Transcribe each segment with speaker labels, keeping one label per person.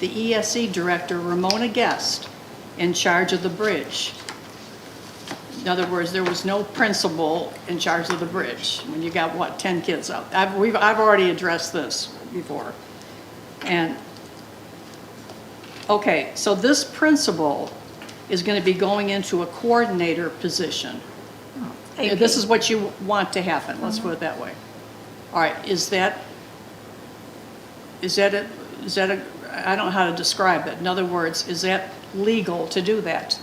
Speaker 1: the ESE Director, Ramona Guest, in charge of the bridge. In other words, there was no principal in charge of the bridge, when you got, what, 10 kids out? I've, we've, I've already addressed this before. And, okay, so this principal is going to be going into a coordinator position. Yeah, This is what you want to happen, let's put it that way. All right, is that, is that a, is that a, I don't know how to describe it. In other words, is that legal to do that?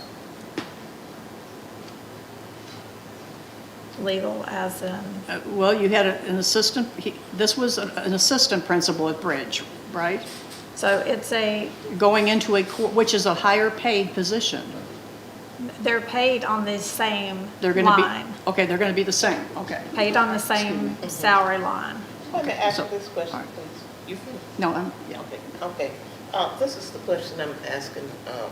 Speaker 2: Legal as in,
Speaker 1: Uh, Well, you had a- an assistant, he- this was an an assistant principal at Bridge, right?
Speaker 2: so it's a,
Speaker 1: Going into a, co- which is a higher paid position.
Speaker 2: they're paid on the same
Speaker 1: They're gonna
Speaker 2: line.
Speaker 1: be, okay, they're gonna be the same, okay.
Speaker 2: Paid on the same salary line.
Speaker 3: Let me ask
Speaker 1: So-
Speaker 3: you this
Speaker 1: all
Speaker 3: question,
Speaker 1: right.
Speaker 3: please. You finish?
Speaker 1: No, I'm, yeah,
Speaker 3: Okay, okay. Uh, This is the question I'm asking um,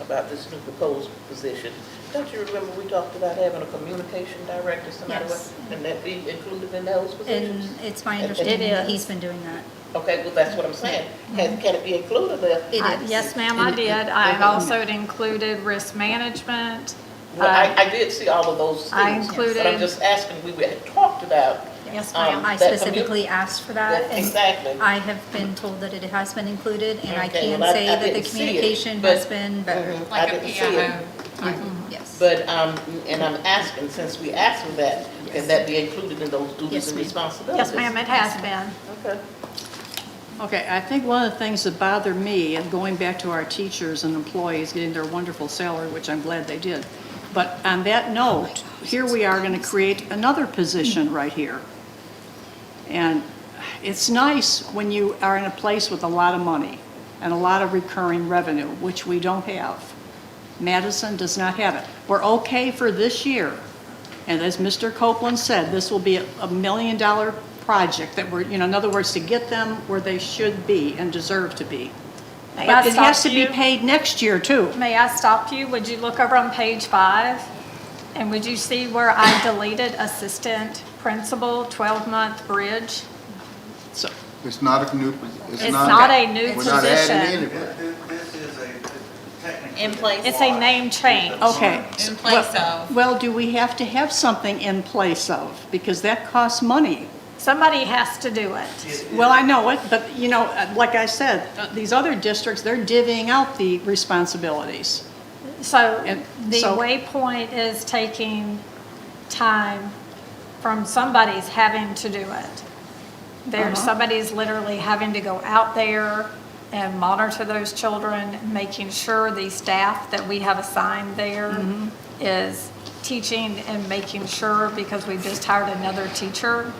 Speaker 3: about this new proposed position. Don't you remember we talked about having a communication director, somebody,
Speaker 4: Yes.
Speaker 3: with- and that be included in those
Speaker 4: And
Speaker 3: positions?
Speaker 4: it's my
Speaker 3: It
Speaker 4: understanding that
Speaker 2: is.
Speaker 4: he's been doing that.
Speaker 3: Okay, well, that's what I'm saying. Can can it be included there?
Speaker 4: It
Speaker 2: I-
Speaker 4: is.
Speaker 2: Yes, ma'am, I did. I've also included risk management.
Speaker 3: Well, I, I did see all of those things.
Speaker 2: I
Speaker 3: But I'm
Speaker 2: included-
Speaker 3: just asking, we had talked about,
Speaker 4: Yes, Oh.
Speaker 3: Um,
Speaker 4: ma'am. I
Speaker 3: that commu-
Speaker 4: specifically asked for that.
Speaker 3: that-
Speaker 4: and
Speaker 3: exactly.
Speaker 4: I have been told that it has been included, and I
Speaker 3: Okay,
Speaker 4: can
Speaker 3: well, I-
Speaker 4: say
Speaker 3: I
Speaker 4: that the
Speaker 3: didn't see it,
Speaker 4: communication
Speaker 3: but-
Speaker 4: has been better.
Speaker 3: Mhm, I
Speaker 5: Like a
Speaker 3: didn't see it.
Speaker 5: PIO.
Speaker 4: Yes.
Speaker 3: But, um, and I'm asking, since we asked for that, can that be included in those
Speaker 4: Yes,
Speaker 3: duties and
Speaker 4: ma'am.
Speaker 3: responsibilities?
Speaker 2: Yes, ma'am, it has been.
Speaker 3: Okay.
Speaker 1: Okay, I think one of the things that bother me, and going back to our teachers and employees getting their wonderful salary, which I'm glad they did, but on that note, here we are going to create another position right here. And it's nice when you are in a place with a lot of money and a lot of recurring revenue, which we don't have. Madison does not have it. We're okay for this year. And as Mr. Copeland said, this will be a a million-dollar project that we're, you know, in other words, to get them where they should be and deserve to be.
Speaker 2: May I
Speaker 1: But it has
Speaker 2: stop
Speaker 1: to be
Speaker 2: you?
Speaker 1: paid next year, too.
Speaker 2: May I stop you? Would you look over on page five? And would you see where I deleted assistant principal, 12-month bridge?
Speaker 1: So,
Speaker 6: It's not a new, it's not.
Speaker 2: It's not a new
Speaker 6: We're not adding
Speaker 2: position.
Speaker 6: anybody.
Speaker 7: This this is a technically.
Speaker 5: In place.
Speaker 2: It's a name change.
Speaker 1: okay.
Speaker 5: In place
Speaker 1: Well-
Speaker 5: of.
Speaker 1: Well, do we have to have something in place of? Because that costs money.
Speaker 2: Somebody has to do it.
Speaker 1: Well, I know it, but, you know, uh, like I said, uh, these other districts, they're divvying out the responsibilities.
Speaker 2: So
Speaker 1: And
Speaker 2: the
Speaker 1: so-
Speaker 2: waypoint is taking time from somebody's having to do it.
Speaker 1: Uh-huh.
Speaker 2: There, somebody's literally having to go out there and monitor those children, making sure the staff that we have assigned there
Speaker 1: Mm-hmm.
Speaker 2: is teaching and making sure, because we've just hired another teacher.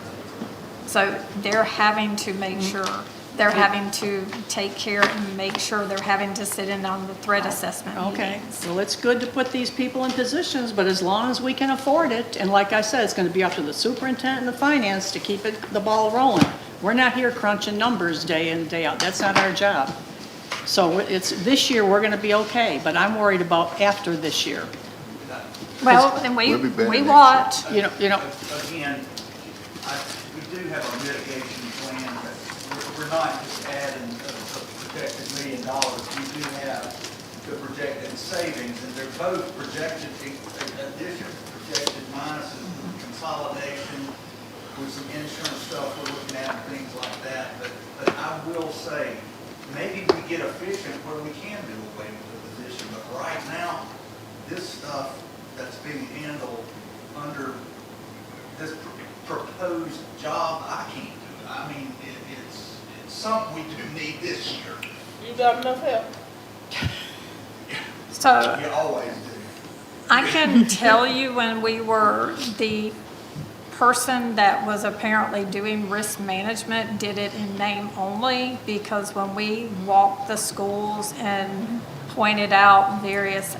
Speaker 2: So they're having to make
Speaker 1: Mm-hmm.
Speaker 2: sure, they're having to take care and make sure they're having to sit in on the threat assessment
Speaker 1: Oh, Okay,
Speaker 2: meetings.
Speaker 1: well, it's good to put these people in positions, but as long as we can afford it, and like I said, it's gonna be up to the superintendent and the finance to keep it, the ball rolling. We're not here crunching numbers day in, day out, that's not our job. So it's, this year, we're gonna be okay, but I'm worried about after this year.
Speaker 2: Well, then we,
Speaker 6: We'll be better
Speaker 2: we
Speaker 6: next
Speaker 2: watch.
Speaker 1: You know, you know,
Speaker 7: Again, I- we do have a mitigation plan, but we're- we're not just adding a a projected million dollars. We do have the projected savings, and they're both projected i- additions, projected minuses, consolidation with some insurance stuff we're looking at and things like that. But, but I will say, maybe we get efficient where we can do away with the position, but right now, this stuff that's being handled under this pr- proposed job, I can't do it. I mean, it, it's, it's something we do need this year.
Speaker 3: You got enough help?
Speaker 2: So Uh,
Speaker 7: You always do.
Speaker 2: I can tell you when we were, the person that was apparently doing risk management did it in name only because when we walked the schools and pointed out various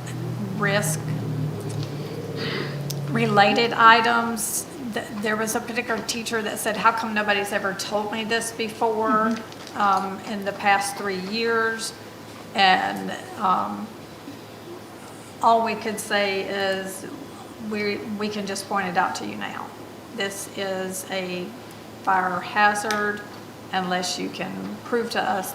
Speaker 2: risk related items, th- there was a particular teacher that said, how come nobody's ever told me this before
Speaker 6: Mm-hmm.
Speaker 2: um, in the past three years? And um, all we could say is, we, we can just point it out to you now. This is a fire hazard unless you can prove to us